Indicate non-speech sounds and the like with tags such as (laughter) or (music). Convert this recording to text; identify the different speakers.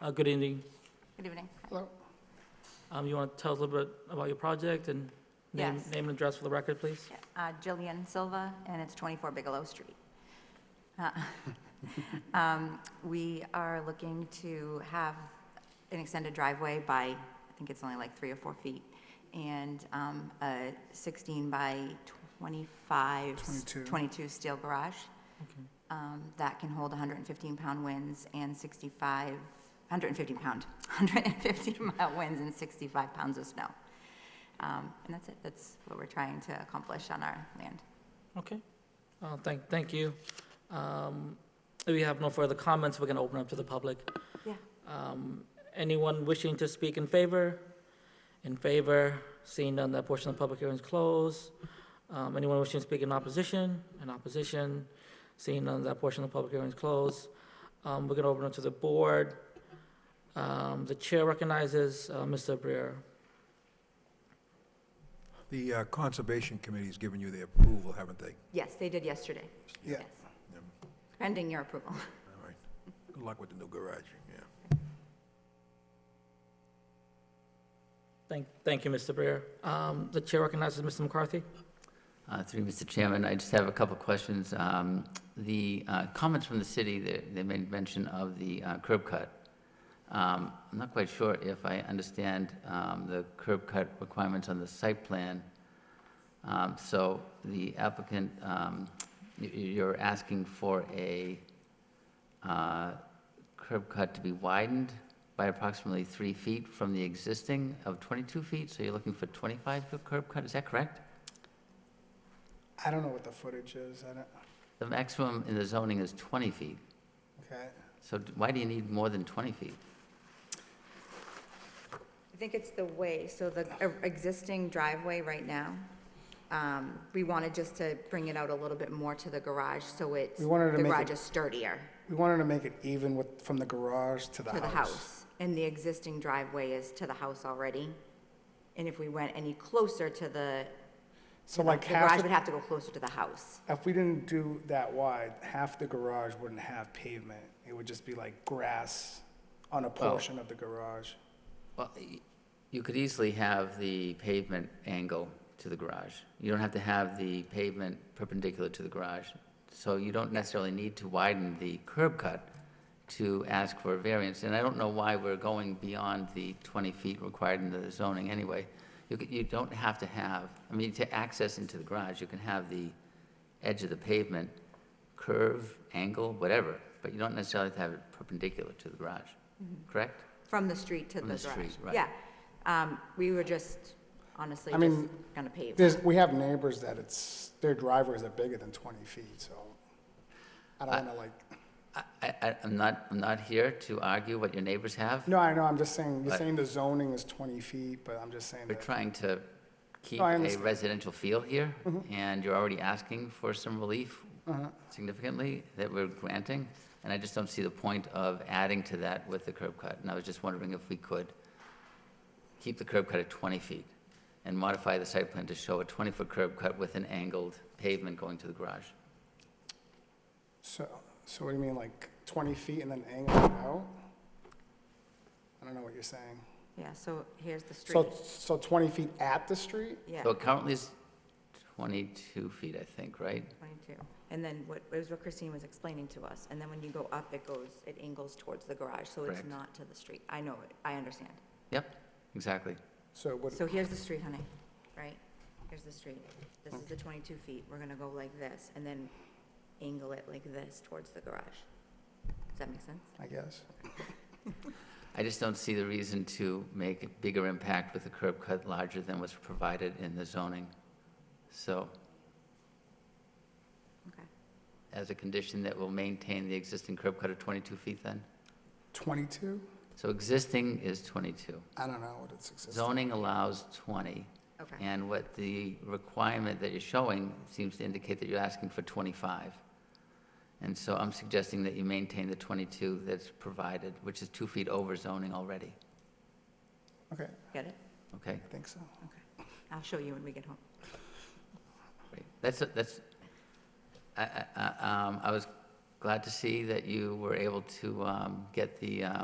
Speaker 1: Uh, Good evening.
Speaker 2: Good evening.
Speaker 1: Um, You want to tell us a little bit about your project and name
Speaker 2: Yes.
Speaker 1: name and address for the record, please?
Speaker 2: Uh, Jillian Silva, and it's 24 Bigelow Street. Uh, (laughs) um, We are looking to have an extended driveway by, I think it's only like three or four feet, and um, a 16 by 25.
Speaker 3: 22.
Speaker 2: 22 steel garage um, that can hold 115-pound winds and 65, (laughs) 150-pound, (laughs) 150-mile winds and 65 pounds of snow. Um, And that's it, that's what we're trying to accomplish on our land.
Speaker 1: Okay. Uh, Thank thank you. Um, If we have no further comments, we're going to open up to the public.
Speaker 2: Yeah.
Speaker 1: Um, Anyone wishing to speak in favor? In favor? Seeing none, that portion of the public hearing is closed. Um, Anyone wishing to speak in opposition? In opposition? Seeing none, that portion of the public hearing is closed. Um, We're going to open up to the board. Um, The chair recognizes uh, Mr. Brier.
Speaker 4: The uh, Conservation Committee's given you the approval, haven't they?
Speaker 2: Yes, they did yesterday.
Speaker 3: Yeah.
Speaker 2: Yes. Pending your approval.
Speaker 4: All right. Good luck with the new garage, yeah.
Speaker 1: Thank thank you, Mr. Brier. Um, The chair recognizes Mr. McCarthy.
Speaker 5: Uh, Through you, Mr. Chairman, I just have a couple of questions. Um, The uh, comments from the city, they- they made mention of the uh, curb cut. Um, I'm not quite sure if I understand um, the curb cut requirements on the site plan. Um, So the applicant, um, y- y- you're asking for a uh, curb cut to be widened by approximately three feet from the existing of 22 feet, so you're looking for 25 foot curb cut, is that correct?
Speaker 3: I don't know what the footage is, I don't,
Speaker 5: The maximum in the zoning is 20 feet,
Speaker 3: okay.
Speaker 5: so d- why do you need more than 20 feet?
Speaker 2: I think it's the way, so the e- existing driveway right now, um, we wanted just to bring it out a little bit more to the garage, so it's, the
Speaker 3: We wanted to make it-
Speaker 2: garage is sturdier
Speaker 3: We wanted to make it even with, from the garage to the
Speaker 2: to
Speaker 3: house.
Speaker 2: the house. And the existing driveway is to the house already. And if we went any closer to the,
Speaker 3: So like
Speaker 2: the
Speaker 3: half,
Speaker 2: garage
Speaker 3: of
Speaker 2: would
Speaker 3: the-
Speaker 2: have to go closer to the house.
Speaker 3: if we didn't do that wide, half the garage wouldn't have pavement. It would just be like grass on a portion of the garage.
Speaker 5: Well, y- you could easily have the pavement angle to the garage. You don't have to have the pavement perpendicular to the garage, so you don't necessarily need to widen the curb cut to ask for a variance, and I don't know why we're going beyond the 20 feet required in the zoning anyway. You c- You don't have to have, I mean, to access into the garage, you can have the edge of the pavement curve, angle, whatever, but you don't necessarily have to have it perpendicular to the garage, correct?
Speaker 2: From the street to the
Speaker 5: From
Speaker 2: garage.
Speaker 5: the street, right.
Speaker 2: Yeah. Um, we were just, honestly,
Speaker 3: I
Speaker 2: just
Speaker 3: mean,
Speaker 2: gonna pave.
Speaker 3: There's, we have neighbors that it's, their driveways are bigger than 20 feet, so I don't want to like,
Speaker 5: I, I, I'm not, I'm not here to argue what your neighbors have.
Speaker 3: no, I know, I'm just saying, you're
Speaker 5: But-
Speaker 3: saying the zoning is 20 feet, but I'm just saying
Speaker 5: We're
Speaker 3: that,
Speaker 5: trying to keep
Speaker 3: No, I
Speaker 5: a
Speaker 3: understand. Mm-hmm.
Speaker 5: residential feel here, and you're already asking for some relief
Speaker 3: Uh-huh.
Speaker 5: significantly that we're granting, and I just don't see the point of adding to that with the curb cut. And I was just wondering if we could keep the curb cut at 20 feet and modify the site plan to show a 20-foot curb cut with an angled pavement going to the garage.
Speaker 3: so, so what do you mean, like 20 feet and then angle it out? I don't know what you're saying.
Speaker 2: Yeah, so here's the street.
Speaker 3: So, so 20 feet at the street?
Speaker 2: Yeah,
Speaker 5: So it currently is 22 feet, I think, right?
Speaker 2: 22. And then what, it was what Christine was explaining to us. And then when you go up, it goes, it angles towards the garage, so it's
Speaker 5: Correct.
Speaker 2: not to the street. I know it, I understand.
Speaker 5: Yep, exactly.
Speaker 3: So what,
Speaker 2: So here's the street, honey, right? Here's the street. This is the 22 feet. We're gonna go like this and then angle it like this towards the garage. Does that make sense?
Speaker 3: I guess.
Speaker 5: I just don't see the reason to make a bigger impact with a curb cut larger than was provided in the zoning. So
Speaker 2: Okay.
Speaker 5: as a condition that will maintain the existing curb cut of 22 feet then?
Speaker 3: 22?
Speaker 5: So existing is 22.
Speaker 3: I don't know what it's existing.
Speaker 5: Zoning allows 20.
Speaker 2: Okay.
Speaker 5: And what the requirement that you're showing seems to indicate that you're asking for 25. And so I'm suggesting that you maintain the 22 that's provided, which is two feet over zoning already,
Speaker 3: Okay,
Speaker 2: Get it?
Speaker 5: okay?
Speaker 3: I think so.
Speaker 2: Okay. I'll show you when we get home.
Speaker 5: Great. That's, that's, I, I, I- um, I was glad to see that you were able to, um, get the, uh,